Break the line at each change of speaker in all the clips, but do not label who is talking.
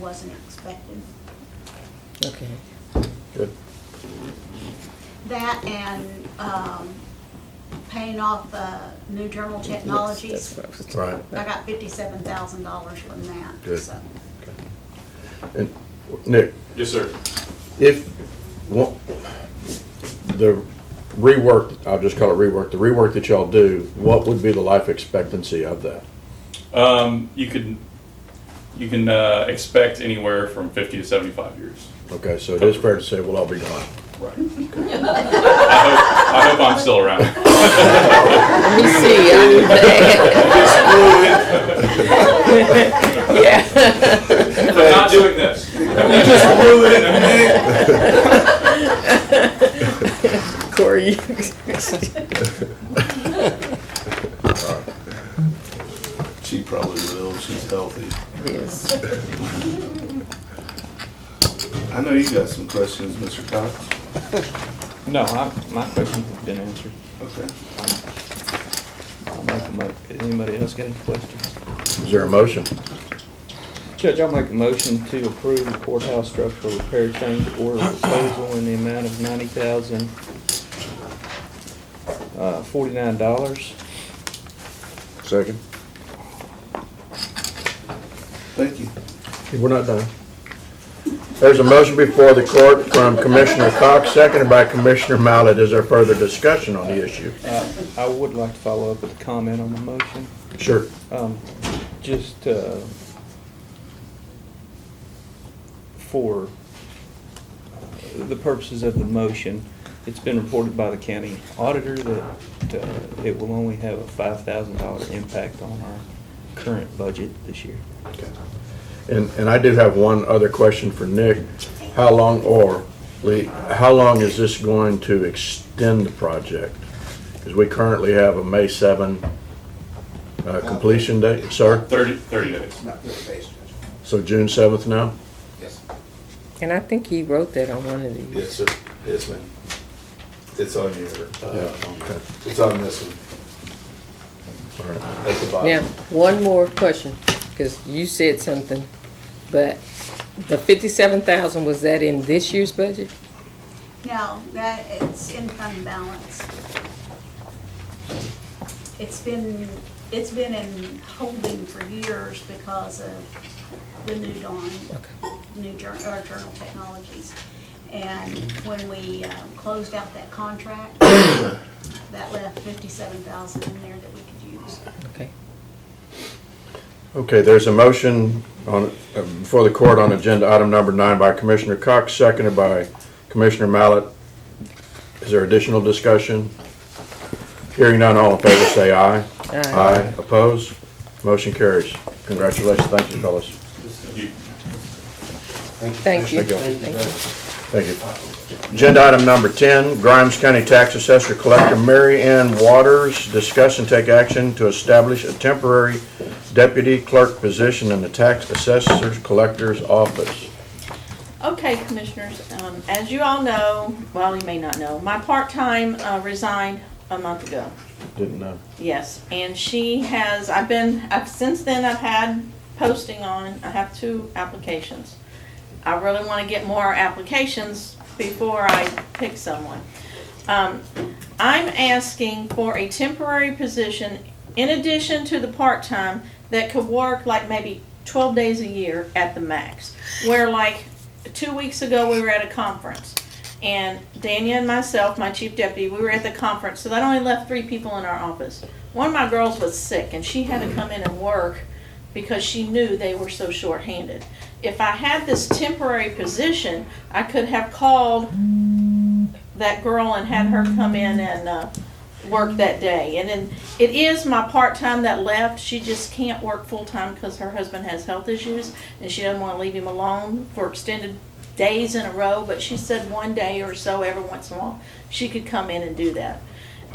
wasn't expected.
Okay.
Good.
That and um, paying off the new Journal Technologies.
That's what I was-
Right.
I got fifty-seven thousand dollars from that,
Good.
so.
Okay. And Nick,
Yes, sir.
if, one- the rework, I'll just call it rework, the rework that y'all do, what would be the life expectancy of that?
Um, you could, you can, uh, expect anywhere from fifty to seventy-five years.
Okay, so it is fair to say we'll all be gone.
Right. I hope, I hope I'm still around.
Let me see, I'm- Yeah.
I'm not doing this.
Corey. you-
She probably will, she's healthy.
Yes.
I know you got some questions, Mr. Cox.
No, I, my question's been answered.
Okay.
I'll make a mo, anybody else got any questions?
Is there a motion?
Judge, I'll make a motion to approve the courthouse structural repair change order proposal in the amount of ninety thousand, uh, forty-nine dollars.
Second.
Thank you.
We're not done. There's a motion before the court from Commissioner Cox, seconded by Commissioner Mallett. Is there further discussion on the issue?
Uh, I would like to follow up with a comment on the motion.
Sure.
Um, just, uh, for uh, the purposes of the motion, it's been reported by the county auditor that, uh, it will only have a five thousand dollar impact on our current budget this year.
And, and I do have one other question for Nick. How long, or Lee, how long is this going to extend the project? Because we currently have a May 7 uh, completion date, sir?
Thirty, thirty days.
Not thirty days, Judge.
So June 7th now?
Yes.
And I think he wrote that on one of these.
Yes, sir. Yes, ma'am. It's on your, uh,
Okay.
it's on this one,
All right.
at the
Now,
bottom.
one more question, because you said something, but the fifty-seven thousand, was that in this year's budget?
No, that, it's in fund balance. It's been, it's been in holding for years because of the new dawn, new journal, or journal technologies. And when we um, closed out that contract, that left fifty-seven thousand in there that we could use.
Okay.
Okay, there's a motion on, uh, before the court on agenda item number nine by Commissioner Cox, seconded by Commissioner Mallett. Is there additional discussion? Hearing none, all in favor say aye.
Aye.
Opposed? Motion carries. Congratulations, thank you, fellas.
You-
Thank you.
Thank you.
Thank you.
Thank you. Agenda item number 10, Grimes County Tax Assessor Collector Mary Ann Waters, discuss and take action to establish a temporary deputy clerk position in the Tax Assessor Collector's Office.
Okay, Commissioners, um, as you all know, well, you may not know, my part-time uh, resigned a month ago.
Didn't uh, know.
Yes, and she has, I've been, I've, since then, I've had posting on, I have two applications. I really want to get more applications before I pick someone. Um, I'm asking for a temporary position in addition to the part-time that could work like maybe twelve days a year at the max. Where like, two weeks ago, we were at a conference. And Dania and myself, my chief deputy, we were at the conference, so that only left three people in our office. One of my girls was sick and she had to come in and work because she knew they were so shorthanded. If I had this temporary position, I could have called that girl and had her come in and, uh, work that day. And then it is my part-time that left. She just can't work full-time because her husband has health issues and she doesn't want to leave him alone for extended days in a row, but she said one day or so every once in a while, she could come in and do that.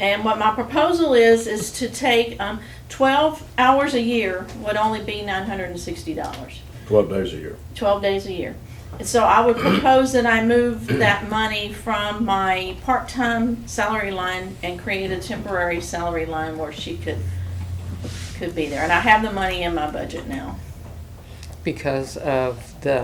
And what my proposal is, is to take, um, twelve hours a year would only be nine hundred and sixty dollars.
12 days a year.
12 days a year. And so I would propose that I move that money from my part-time salary line and create a temporary salary line where she could, could be there. And I have the money in my budget now.
Because of the